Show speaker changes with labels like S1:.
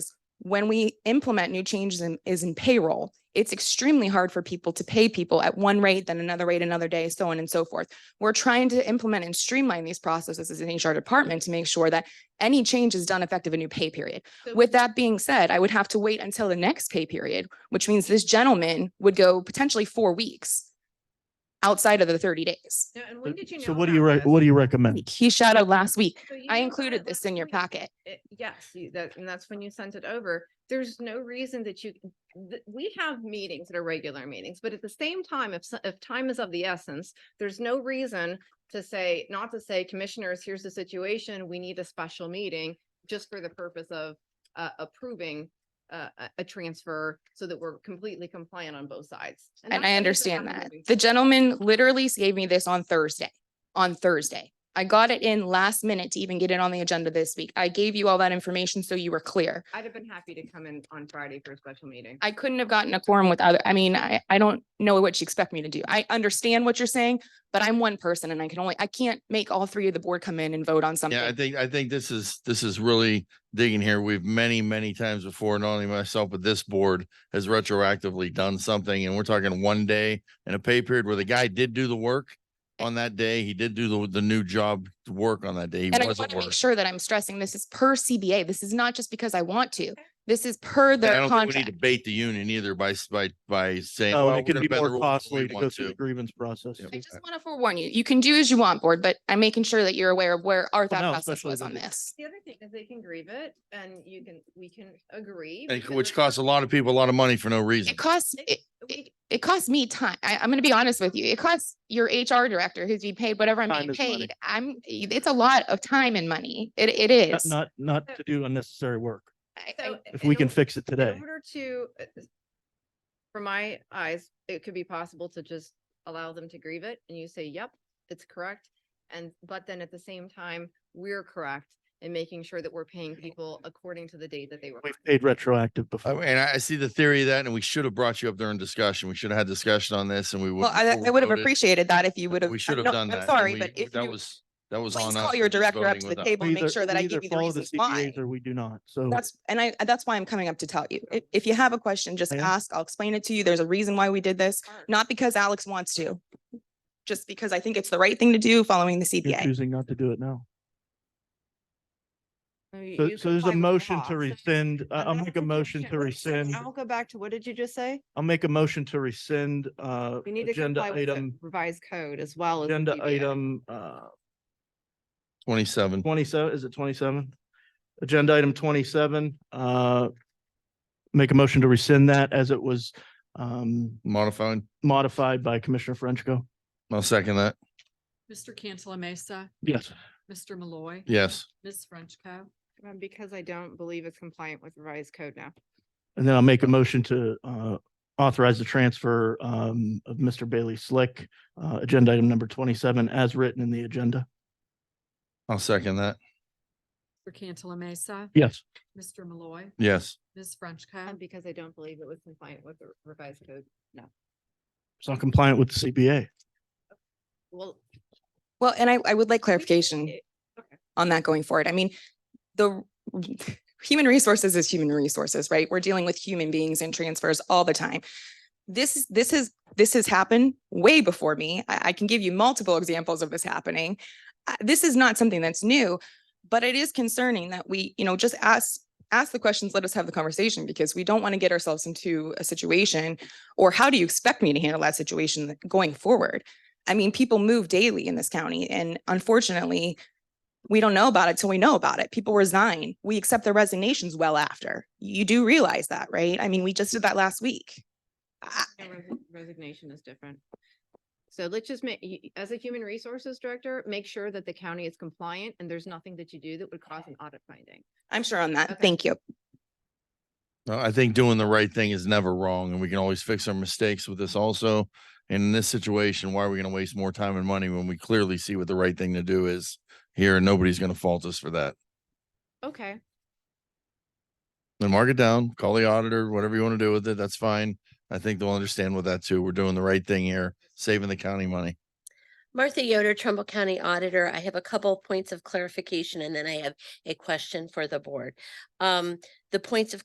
S1: when we implement new changes in, is in payroll, it's extremely hard for people to pay people at one rate, then another rate, another day, so on and so forth. We're trying to implement and streamline these processes as an HR department to make sure that any change is done effective a new pay period.
S2: So-
S1: With that being said, I would have to wait until the next pay period, which means this gentleman would go potentially four weeks outside of the thirty days.
S2: No, And when did you know?
S3: So what do
S2: about
S3: you, re-
S2: this?
S3: what do you recommend?
S1: He shadowed last week.
S2: So you
S1: I
S2: knew about
S1: included
S2: it
S1: this
S2: last
S1: in your
S2: week.
S1: packet.
S2: It- Yes, you, that, and that's when you sent it over. There's no reason that you, th- we have meetings that are regular meetings, but at the same time, if, so- if time is of the essence, there's no reason to say, not to say, commissioners, here's the situation, we need a special meeting, just for the purpose of uh, approving uh, a, a transfer so that we're completely compliant on both sides.
S1: And I
S2: that's what needs to
S1: understand
S2: happen
S1: that.
S2: moving
S1: The
S2: forward.
S1: gentleman literally gave me this on Thursday, on Thursday. I got it in last minute to even get it on the agenda this week. I gave you all that information so you were clear.
S2: I'd have been happy to come in on Friday for a special meeting.
S1: I couldn't have gotten a quorum with other, I mean, I, I don't know what you expect me to do. I understand what you're saying, but I'm one person and I can only, I can't make all three of the board come in and vote on
S4: Yeah, I
S1: something.
S4: think, I think this is, this is really digging here. We've many, many times before, not only myself, but this board has retroactively done something and we're talking one day in a pay period where the guy did do the work on that day. He did do the, the new job to work on that day. He
S1: And I
S4: wasn't
S1: want to make
S4: working.
S1: sure that I'm stressing this is per CBA. This is not just because I want to. This is per
S4: I
S1: their
S4: don't think we need
S1: contract.
S4: to bait the union either by, s- by, by saying.
S3: Oh,
S4: "Well,
S3: it
S4: we're
S3: could
S4: gonna
S3: be
S4: bend the
S3: more
S4: rules the way
S3: costly to
S4: we
S3: go
S4: want
S3: through the grievance process.
S4: Yeah.
S1: I just want to forewarn you. You can do as you want, board, but I'm making sure that you're aware of where our
S3: Well,
S1: thought
S3: no,
S1: process
S3: especially
S1: was on
S3: with-
S1: this.
S2: The other thing is they can grieve it and you can, we can agree.
S4: And
S2: because
S4: which costs a lot of people a lot of money for no reason.
S1: It costs, it, it, it costs me time. I, I'm gonna be honest with you. It costs your HR director who's being paid whatever I'm
S3: Time
S1: being
S3: is money.
S1: paid. I'm, it's a lot of time and money. It, it
S3: Not-
S1: is.
S3: Not, not to do unnecessary work.
S1: I- I-
S2: So
S3: If
S2: in
S3: we can
S2: or-
S3: fix it
S2: In
S3: today.
S2: order to, uh, from my eyes, it could be possible to just allow them to grieve it and you say, yep, it's correct. And, but then at the same time, we're correct in making sure that we're paying people according to the date that they were.
S3: We've paid retroactive
S4: I-
S3: before.
S4: And I I see the theory of that, and we should have brought you up during discussion. We should have had discussion on this and we would.
S1: Well, I,
S4: before
S1: I
S4: we
S1: would have
S4: voted.
S1: appreciated that if you would have. uh,
S4: We should have
S1: no,
S4: done that.
S1: I'm
S4: and
S1: sorry,
S4: we-
S1: but if
S4: That
S1: you,
S4: was, that was on us.
S1: please call
S4: for
S1: your
S4: just
S1: director up
S4: voting
S1: to the
S4: without-
S1: table,
S3: We
S1: and make
S3: either-
S1: sure that
S3: we
S1: I
S3: either
S1: give you the
S3: follow
S1: reasons
S3: CBAs
S1: why.
S3: Or we do not. So
S1: That's, and I, that's why I'm coming up to tell you. If, if you have a question, just
S3: Oh, Yeah.
S1: ask. I'll explain it to you. There's a reason why we did this,
S2: Sure.
S1: not because Alex wants to. Just because I think it's the right thing to do following the
S3: you're
S1: CBA.
S3: choosing not to do it now.
S2: You-
S3: So,
S2: you
S3: so
S2: comply
S3: there's a
S2: with the
S3: motion
S2: law.
S3: to
S2: So-
S3: rescind, I-
S2: and
S3: I'll
S2: that's
S3: make a
S2: what you
S3: motion
S2: should-
S3: to
S2: wait, so
S3: rescind,
S2: I will go back to, what did you just say?
S3: I'll make a motion to rescind, uh,
S2: We need to
S3: agenda
S2: comply with the
S3: item,
S2: revised code as well as. the
S3: agenda
S2: CBA.
S3: item, uh,
S4: Twenty-seven.
S3: twenty-seven, is it twenty-seven? Agenda item twenty-seven, uh, make a motion to rescind that as it was, um,
S4: Modified.
S3: modified by Commissioner Frenchco.
S4: I'll second that.
S5: Mr. Cantala Mesa,
S3: Yes.
S5: Mr. Malloy.
S4: Yes.
S5: Ms. Frenchco.
S2: Um, Because I don't believe it's compliant with revised code now.
S3: And then I'll make a motion to, uh, authorize the transfer, um, of Mr. Bailey Slick, uh, agenda item number twenty-seven as written in the agenda.
S4: I'll second that.
S5: Mr. Cantala Mesa,
S3: Yes.
S5: Mr. Malloy,
S4: Yes.
S5: Ms.
S2: And
S5: Frenchco.
S2: Um, because I don't believe it was compliant with the revised code.
S3: It's not compliant with the CBA.
S2: Well.
S1: Well, and I, I would like clarification
S2: it-
S1: on that going forward. I mean, the human resources is human resources, right? We're dealing with human beings and transfers all the time. This, is this is, this has happened way before me. I, I can give you multiple examples of this happening. Uh, This is not something that's new, but it is concerning that we, you know, just ask, ask the questions, let us have the conversation because we don't want to get ourselves into a situation or how do you expect me to handle that situation going forward? I mean, people move daily in this county and unfortunately, we don't know about it till we know about it. People resign. We accept their resignations well after. You do realize that, right? I mean, we just did that last week. I-
S2: no, resi- Resignation is different. So let's just make, as a human resources director, make sure that the county is compliant and there's nothing that you do that would cause an audit finding.
S1: I'm sure on that.
S2: Okay.
S1: Thank you.
S4: Uh, I think doing the right thing is never wrong, and we can always fix our mistakes with this also. And in this situation, why are we going to waste more time and money when we clearly see what the right thing to do is here? And nobody's going to fault us for that.
S2: Okay,
S4: Then mark it down, call the auditor, whatever you want to do with it, that's fine. I think they'll understand with that too. We're doing the right thing here, saving the county money.
S6: Martha Yoder, Trumbull County Auditor. I have a couple points of clarification and then I have a question for the board. Um, the points of